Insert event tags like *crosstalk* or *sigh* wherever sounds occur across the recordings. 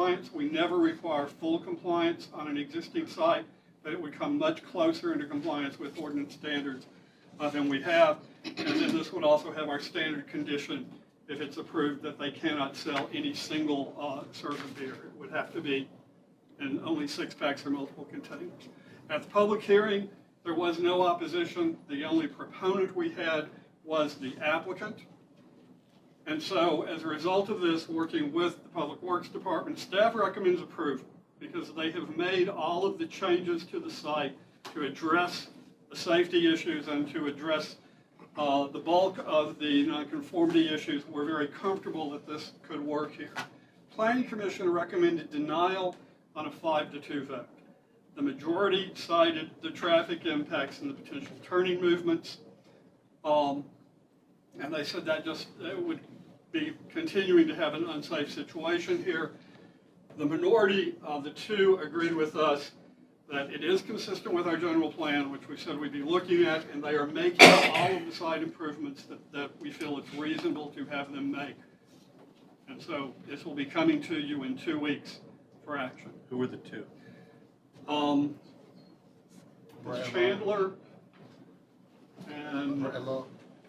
compliance. We never require full compliance on an existing site, but it would come much closer into compliance with ordinance standards uh, than we have. And then this would also have our standard condition, if it's approved, that they cannot sell any single uh, serve of beer. It would have to be and only six packs or multiple containers. At the public hearing, there was no opposition. The only proponent we had was the applicant. And so as a result of this, working with the Public Works Department, staff recommends approval because they have made all of the changes to the site to address the safety issues and to address uh, the bulk of the nonconformity issues. We're very comfortable that this could work here. Planning Commission recommended denial on a five to two vote. The majority cited the traffic impacts and the potential turning movements. Um, and they said that just, it would be continuing to have an unsafe situation here. The minority of the two agreed with us that it is consistent with our general plan, which we said we'd be looking at, and they are making all of the site improvements that, that we feel it's reasonable to have them make. And so this will be coming to you in two weeks for action. Who were the two? Um, Brad Law. Chandler and, Brelo,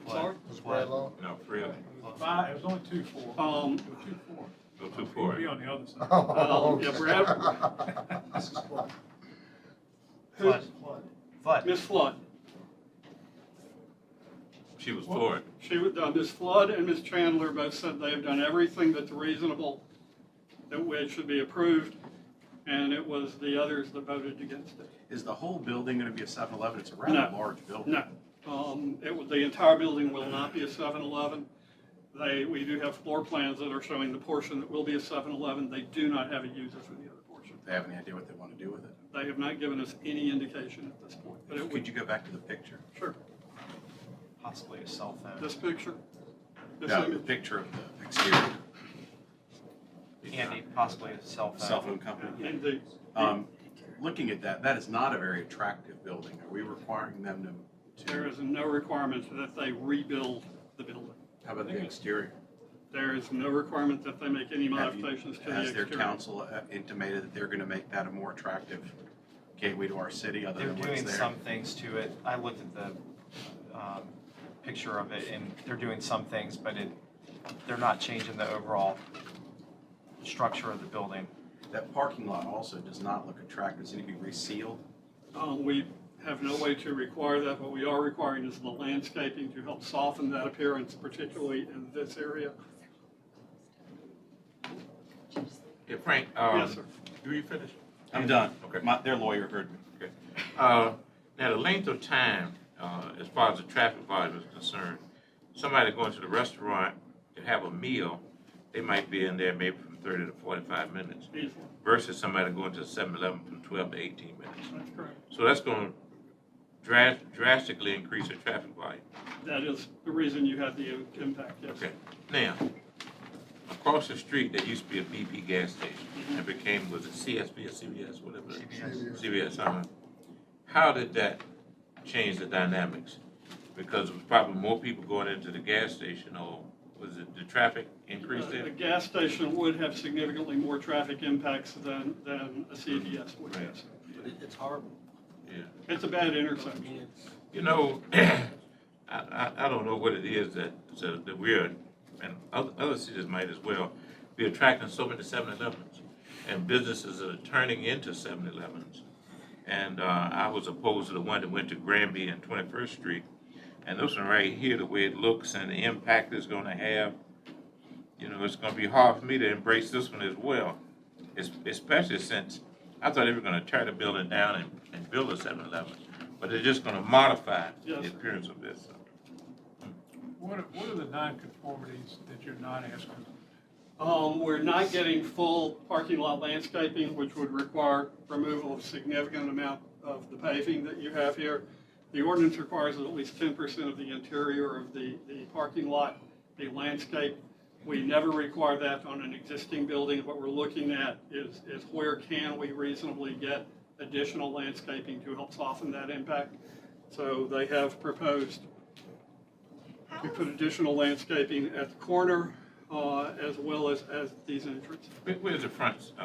sorry? was Brelo. No, three of them. Five, it was only two, four. Um, It was two, four. Go two We'll for be it. on the other side. *laughs* Oh, yeah, okay. Brad- *laughs* This is four. who, Flood. Ms. Flood. She was for it. She, would- uh, Ms. Flood and Ms. Chandler both said they have done everything that's reasonable, that way it should be approved, and it was the others that voted against it. Is the whole building gonna be a 7-Eleven? It's a rather No. large building. No, um, it would, the entire building will not be a 7-Eleven. They, we do have floor plans that are showing the portion that will be a 7-Eleven. They do not have a user for the other portion. They have any idea what they wanna do with it? They have not given us any indication at this point, but it Could would, you go back to the picture? sure, Possibly a cell phone. this picture. this No, the image. picture of the exterior. Andy, possibly a cell phone. Cell phone company. And the, Um, looking at that, that is not a very attractive building. Are we requiring them to, there to, is no requirement that they rebuild the building. how about the exterior? There is no requirement that they make any Have you- modifications to the Has their exterior. council uh, intimated that they're gonna make that a more attractive gateway to our city other They're than what's doing there? some things to it. I looked at the um, picture of it and they're doing some things, but it, they're not changing the overall structure of the building. That parking lot also does not look attractive. Does it need to be resealed? Um, we have no way to require that. What we are requiring is the landscaping to help soften that appearance, particularly in this area. Yeah, Frank, um, Yes, sir. do you finish? I'm done. Okay. My, their lawyer heard me. Okay. Uh, Now, the length of time, uh, as far as the traffic volume is concerned, somebody going to the restaurant to have a meal, they might be in there maybe from thirty to forty-five minutes Easily, versus somebody going to Seven-Eleven from twelve to eighteen minutes. that's correct. So that's gonna dras- drastically increase the traffic volume. That is the reason you have the impact, yes. Okay, now, across the street, there used to be a BP gas station, and became, was it CSB or CBS, whatever? it is? CBS. CBS, uh-huh. How did that change the dynamics? Because it was probably more people going into the gas station, or was it the traffic increased Uh, The there? gas station would have significantly more traffic impacts than, than a CVS would have. Right. It's horrible. Yeah. It's a bad intersection. Uh, You know, *clears throat* I, I, I don't know what it is that, so that we're, and other, other cities might as well, be attracting so many 7 Elevens. And businesses that are turning into 7 Elevens. And, uh, I was opposed to the one that went to Granby and Twenty-first Street. And this one right here, the way it looks and the impact it's gonna have, you know, it's gonna be hard for me to embrace this one as well. Es- Especially since I thought they were gonna tear the building down and, and build a 7-Eleven, but they're just gonna modify the Yes, sir. appearance of this. What are, what are the nonconformities that you're not asking? Um, we're not getting full parking lot landscaping, which would require removal of significant amount of the paving that you have here. The ordinance requires that at least ten percent of the interior of the, the parking lot be landscaped. We never require that on an existing building. What we're looking at is, is where can we reasonably get additional landscaping to help soften that impact? So they have proposed How we is- put additional landscaping at the corner, uh, as well as, as these entrances. Where- Where's the front, uh,